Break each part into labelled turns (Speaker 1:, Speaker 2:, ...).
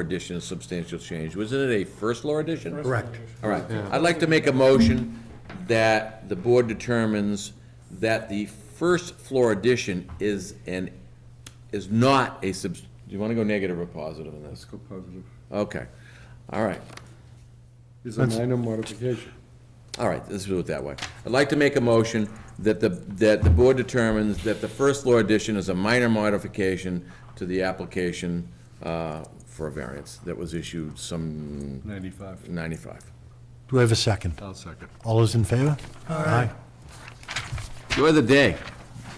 Speaker 1: edition of substantial change. Wasn't it a first law edition?
Speaker 2: Correct.
Speaker 1: All right. I'd like to make a motion that the board determines that the first floor addition is an, is not a sub, do you want to go negative or positive in this?
Speaker 3: Let's go positive.
Speaker 1: Okay. All right.
Speaker 3: Is a minor modification.
Speaker 1: All right, let's do it that way. I'd like to make a motion that the, that the board determines that the first floor addition is a minor modification to the application uh, for a variance that was issued some
Speaker 3: Ninety-five.
Speaker 1: 95.
Speaker 2: Do we have a second?
Speaker 3: I'll second.
Speaker 2: All those in favor? Aye.
Speaker 1: Enjoy the day.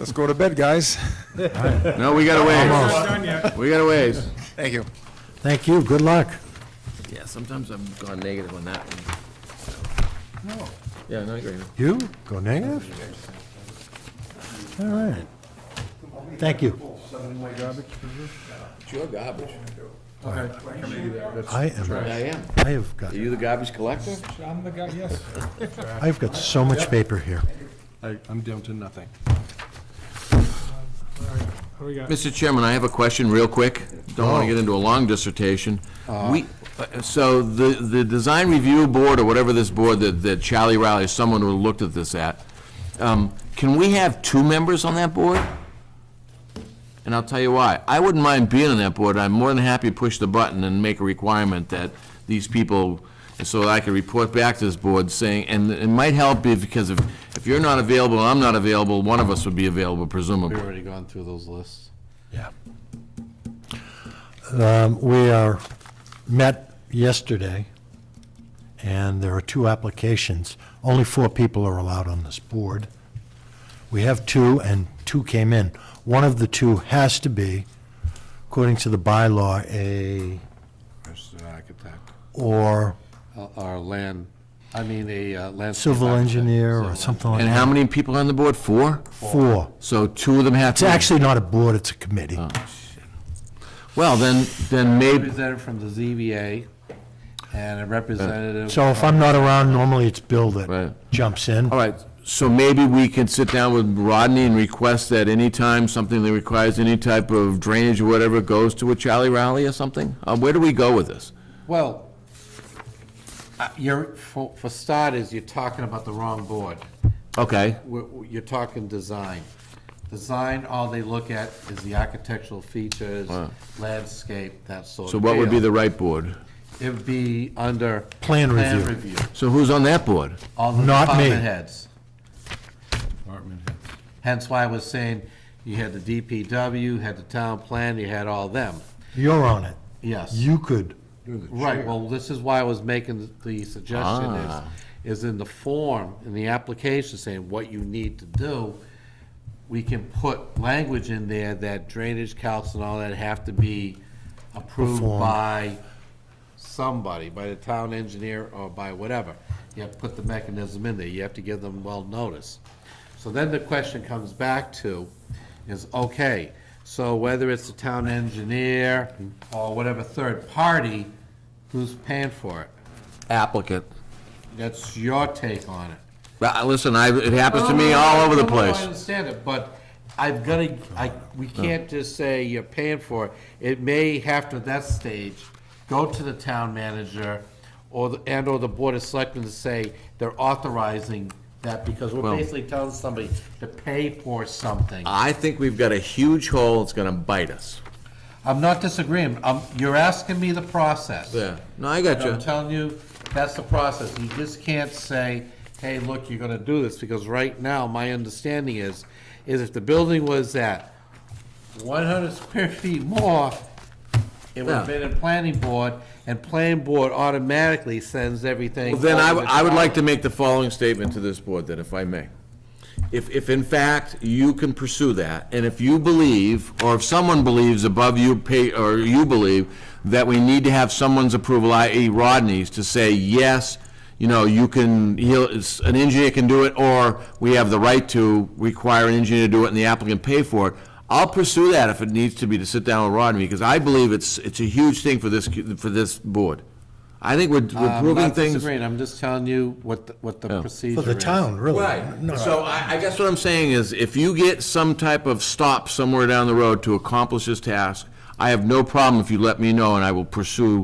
Speaker 4: Let's go to bed, guys.
Speaker 1: No, we got a ways. We got a ways.
Speaker 4: Thank you.
Speaker 2: Thank you, good luck.
Speaker 1: Yeah, sometimes I've gone negative on that one. No. Yeah, no, I agree.
Speaker 2: You, go negative? All right. Thank you.
Speaker 1: It's your garbage.
Speaker 2: I am,
Speaker 1: I am.
Speaker 2: I have got,
Speaker 1: Are you the garbage collector?
Speaker 5: I'm the guy, yes.
Speaker 2: I've got so much paper here.
Speaker 3: I, I'm down to nothing.
Speaker 5: Who we got?
Speaker 1: Mr. Chairman, I have a question real quick. Don't want to get into a long dissertation. We, uh, so the, the design review board or whatever this board that, that Charlie Riley, someone who looked at this at, um, can we have two members on that board? And I'll tell you why. I wouldn't mind being on that board. I'm more than happy to push the button and make a requirement that these people, so that I can report back to this board saying, and it might help if, because if, if you're not available, and I'm not available, one of us would be available presumably.
Speaker 6: We've already gone through those lists.
Speaker 2: Yeah. Um, We are, met yesterday, and there are two applications. Only four people are allowed on this board. We have two, and two came in. One of the two has to be, according to the bylaw, a,
Speaker 6: There's an architect.
Speaker 2: or
Speaker 6: Uh, Or land, I mean, a uh, landscape.
Speaker 2: civil
Speaker 6: architect.
Speaker 2: engineer, or
Speaker 6: Civil-
Speaker 2: something like
Speaker 1: And
Speaker 2: that.
Speaker 1: how many people are on the board? Four?
Speaker 2: Four.
Speaker 1: So two of them have
Speaker 2: It's
Speaker 1: to.
Speaker 2: actually not a board, it's a committee.
Speaker 1: Oh. Well, then, then maybe,
Speaker 6: Representative from the ZBA and a representative.
Speaker 2: So if I'm not around, normally it's Bill that
Speaker 1: Right.
Speaker 2: jumps in.
Speaker 1: all right, so maybe we can sit down with Rodney and request that anytime something that requires any type of drainage or whatever goes to a Charlie Rally or something? Uh, where do we go with this?
Speaker 6: Well, uh, you're, for, for starters, you're talking about the wrong board.
Speaker 1: Okay,
Speaker 6: We're- we're- You're talking design. Design, all they look at is the architectural features, landscape, that sort of
Speaker 1: so what would be
Speaker 6: deal.
Speaker 1: the right board?
Speaker 6: It would be under.
Speaker 2: Plan
Speaker 6: Plan
Speaker 2: review.
Speaker 6: review.
Speaker 1: So who's on that board?
Speaker 6: All the
Speaker 2: Not me.
Speaker 6: department heads. Hence why I was saying you had the DPW, had the town plan, you had all them.
Speaker 2: You're on it.
Speaker 6: Yes.
Speaker 2: You could.
Speaker 6: Right, well, this is why I was making the suggestion
Speaker 2: Ah.
Speaker 6: is, is in the form, in the application saying what you need to do, we can put language in there that drainage counts and all that have to be approved
Speaker 2: Performed.
Speaker 6: by somebody, by the town engineer or by whatever. You have to put the mechanism in there, you have to give them well notice. So then the question comes back to is, okay, so whether it's the town engineer or whatever third party, who's paying for it?
Speaker 1: Applicant.
Speaker 6: That's your take on it.
Speaker 1: Uh, Listen, I, it happens to me all over the
Speaker 6: No, no, no,
Speaker 1: place.
Speaker 6: I understand it, but I've got to, I, we can't just say you're paying for it. It may, after that stage, go to the town manager or, the- and/or the board of selectmen to say they're authorizing that because we're
Speaker 1: Well-
Speaker 6: basically telling somebody to pay for something.
Speaker 1: I think we've got a huge hole, it's gonna bite us.
Speaker 6: I'm not disagreeing. i you're asking me the process.
Speaker 1: Yeah, no, I got
Speaker 6: And I'm
Speaker 1: you.
Speaker 6: telling you, that's the process. You just can't say, hey, look, you're gonna do this, because right now, my understanding is, is if the building was at one hundred square feet more, it would have
Speaker 1: Yeah.
Speaker 6: been in planning board, and planning board automatically sends everything.
Speaker 1: Then I,
Speaker 6: over
Speaker 1: w- I would like to
Speaker 6: town.
Speaker 1: make the following statement to this board, then, if I may. If, if in fact you can pursue that, and if you believe, or if someone believes above you pay, or you believe, that we need to have someone's approval, i.e. Rodney's, to say, yes, you know, you can, he'll, it's- an engineer can do it, or we have the right to require an engineer to do it and the applicant pay for it, I'll pursue that if it needs to be to sit down with Rodney, because I believe it's, it's a huge thing for this, for this board. I think we're we're
Speaker 6: I'm
Speaker 1: proving
Speaker 6: Um, not
Speaker 1: things.
Speaker 6: disagreeing, I'm just telling you what, the- what the procedure
Speaker 2: For
Speaker 6: is.
Speaker 2: the town, really.
Speaker 1: Right,
Speaker 2: No.
Speaker 1: so I, I guess what I'm saying is, if you get some type of stop somewhere down the road to accomplish this task, I have no problem if you let me know, and I will pursue